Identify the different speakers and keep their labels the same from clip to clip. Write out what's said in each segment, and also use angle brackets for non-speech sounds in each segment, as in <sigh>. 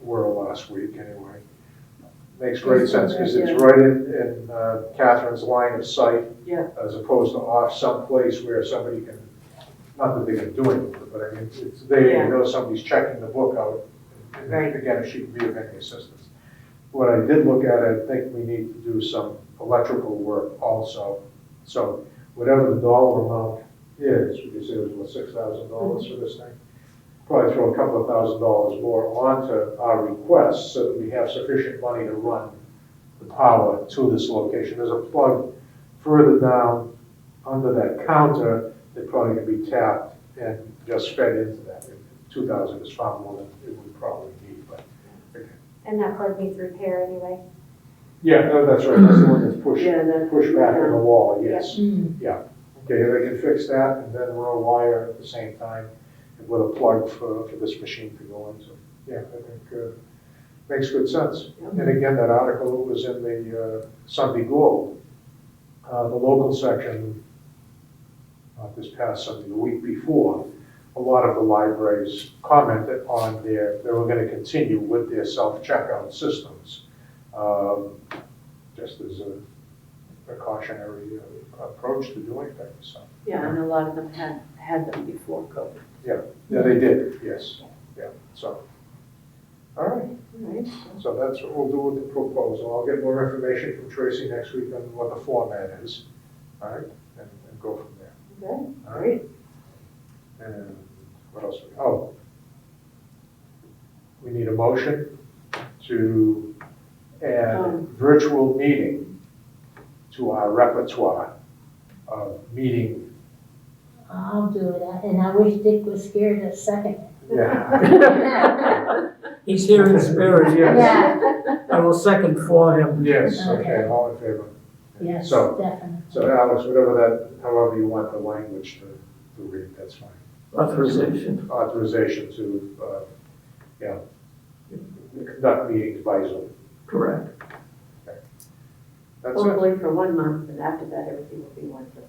Speaker 1: world last week anyway. Makes great sense because it's right in, in uh, Catherine's line of sight.
Speaker 2: Yeah.
Speaker 1: As opposed to off someplace where somebody can, not that they can do anything, but I mean, it's, they
Speaker 2: Yeah.
Speaker 1: know somebody's checking the book out. and
Speaker 2: Right.
Speaker 1: Again, if she can be of any assistance. What I did look at, I think we need to do some electrical work also. So whatever the dollar amount is, we could say it was what, six thousand dollars for this thing? probably throw a couple of thousand dollars more onto our request so that we have sufficient money to run the power to this location. There's a plug further down under that counter that probably can be tapped and just fed into that. Two thousand is far more than it would probably need, but,
Speaker 3: And that plug needs repair anyway.
Speaker 1: yeah, no, that's right, that's the one that's pushed,
Speaker 2: Yeah, that's-
Speaker 1: pushed back on the wall, yes.
Speaker 2: Mm,
Speaker 1: Okay, they can fix that and then run a wire at the same time with a plug for, for this machine to go into. Yeah, I think, uh, makes good sense. And again, that article was in the uh, Sunday Globe, uh, the local section, not this past Sunday, the week before, a lot of the libraries commented on their, they were gonna continue with their self-checkout systems. um, Just as a precautionary uh, approach to doing things, so.
Speaker 2: Yeah, and a lot of them had, had them before COVID.
Speaker 1: Yeah, they did, yes, yeah, so. All right,
Speaker 2: Right.
Speaker 1: so that's what we'll do with the proposal. I'll get more information from Tracy next week on what the format is, all right? And, and go from there,
Speaker 2: Okay,
Speaker 1: all right?
Speaker 2: great.
Speaker 1: And what else? we Oh. We need a motion to add
Speaker 2: Um.
Speaker 1: virtual meeting to our repertoire of meeting.
Speaker 4: I'll do it, and I wish Dick was here to second.
Speaker 2: <laughs>
Speaker 1: Yeah. <laughs>
Speaker 5: He's here in spirit.
Speaker 1: Yes,
Speaker 5: I will second for him.
Speaker 1: yes, okay, all in favor?
Speaker 4: Yes,
Speaker 1: So,
Speaker 4: definitely.
Speaker 1: So Alex, whatever that, however you want the language to, to read, that's fine.
Speaker 5: Authorization.
Speaker 1: Authorization to, uh, yeah, conduct meetings by Zoom.
Speaker 5: Correct.
Speaker 1: That's it.
Speaker 2: Probably for one month, and after that, everything will be wonderful.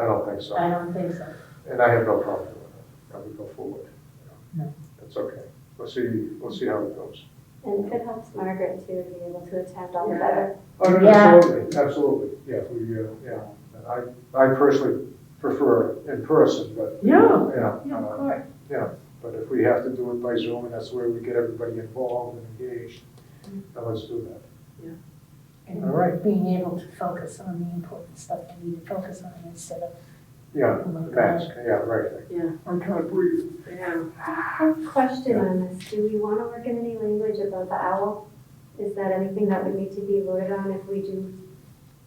Speaker 1: I don't think so.
Speaker 4: I don't think so.
Speaker 1: And I have no problem with it. I would go forward. you know.
Speaker 4: No.
Speaker 1: That's okay. We'll see, we'll see how it goes.
Speaker 3: And it helps Margaret too to be able to attend all the better.
Speaker 1: Oh, no, no,
Speaker 4: Yeah.
Speaker 1: absolutely, absolutely. Yeah, we, uh, yeah. And I, I personally prefer in person, but,
Speaker 2: Yeah,
Speaker 1: you know,
Speaker 2: yeah,
Speaker 1: uh,
Speaker 2: of course.
Speaker 1: But if we have to do it by Zoom, and that's the way we get everybody involved and engaged, then let's do that.
Speaker 4: And
Speaker 1: All right.
Speaker 4: Being able to focus on the important stuff we need to focus on instead of,
Speaker 1: Yeah,
Speaker 4: oh my
Speaker 1: the
Speaker 4: God.
Speaker 1: mask, yeah, right.
Speaker 2: Yeah.
Speaker 1: I'm trying to breathe.
Speaker 2: Yeah.
Speaker 3: Question on this, do we want to work in any language about the owl? Is that anything that would need to be voted on if we do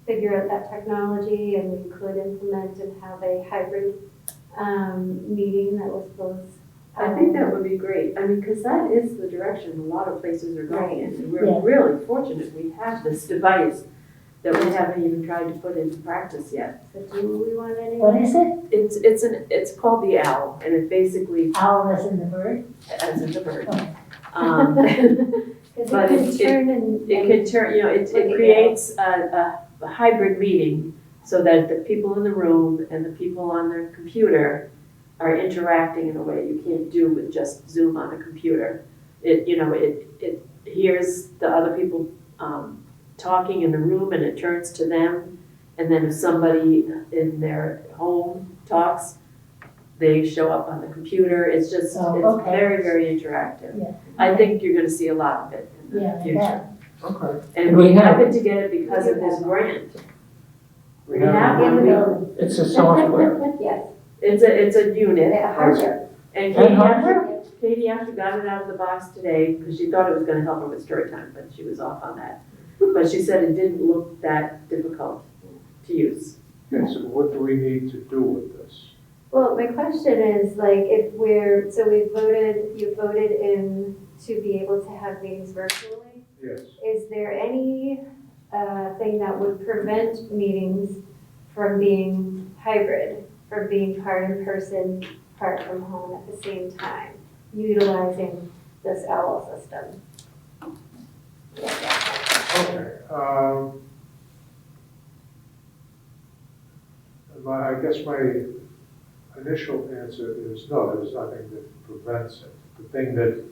Speaker 3: figure out that technology and we could implement and have a hybrid um, meeting that was both?
Speaker 2: I think that would be great, I mean, because that is the direction a lot of places are going in. And We're
Speaker 4: Yeah.
Speaker 2: really fortunate we have this device that we haven't even tried to put into practice yet.
Speaker 3: So do we want any?
Speaker 4: what is it?
Speaker 2: It's, it's an, it's called the owl, and it basically,
Speaker 4: Owl as in the bird?
Speaker 2: as in the bird.
Speaker 4: Okay.
Speaker 3: <laughs>
Speaker 2: Um, But
Speaker 3: Because it
Speaker 2: it-
Speaker 3: could turn and.
Speaker 2: It can turn, you know, it,
Speaker 3: Like
Speaker 2: it
Speaker 3: a
Speaker 2: creates a, a hybrid meeting so that the people in the room and the people on their computer are interacting in a way you can't do with just Zoom on a computer. It, you know, it, it hears the other people, um, talking in the room and it turns to them. And then if somebody in their home talks, they show up on the computer. It's just,
Speaker 4: Oh,
Speaker 2: it's
Speaker 4: okay.
Speaker 2: very, very interactive.
Speaker 4: Yeah.
Speaker 2: I think you're gonna see a lot of it in
Speaker 4: Yeah,
Speaker 2: the
Speaker 4: I
Speaker 2: future.
Speaker 4: bet.
Speaker 1: Okay.
Speaker 5: And
Speaker 2: And
Speaker 5: we
Speaker 2: we
Speaker 5: have-
Speaker 2: happened to get it because of this grant.
Speaker 1: We
Speaker 2: We
Speaker 1: have,
Speaker 2: have-
Speaker 3: In the building.
Speaker 5: It's a software.
Speaker 3: Yes,
Speaker 2: It's a, it's a unit.
Speaker 3: the hardware.
Speaker 2: And
Speaker 5: And
Speaker 2: Katie
Speaker 5: hardware?
Speaker 2: after, Katie after got it out of the box today, because she thought it was gonna help her with story time, but she was off on that. But she said it didn't look that difficult to use.
Speaker 1: okay, so what do we need to do with this?
Speaker 3: Well, my question is, like, if we're, so we voted, you voted in to be able to have meetings virtually.
Speaker 1: Yes.
Speaker 3: Is there any uh, thing that would prevent meetings from being hybrid, from being part in person, part from home at the same time, utilizing this owl system?
Speaker 1: Okay, um. My, I guess my initial answer is no, there's nothing that prevents it. The thing that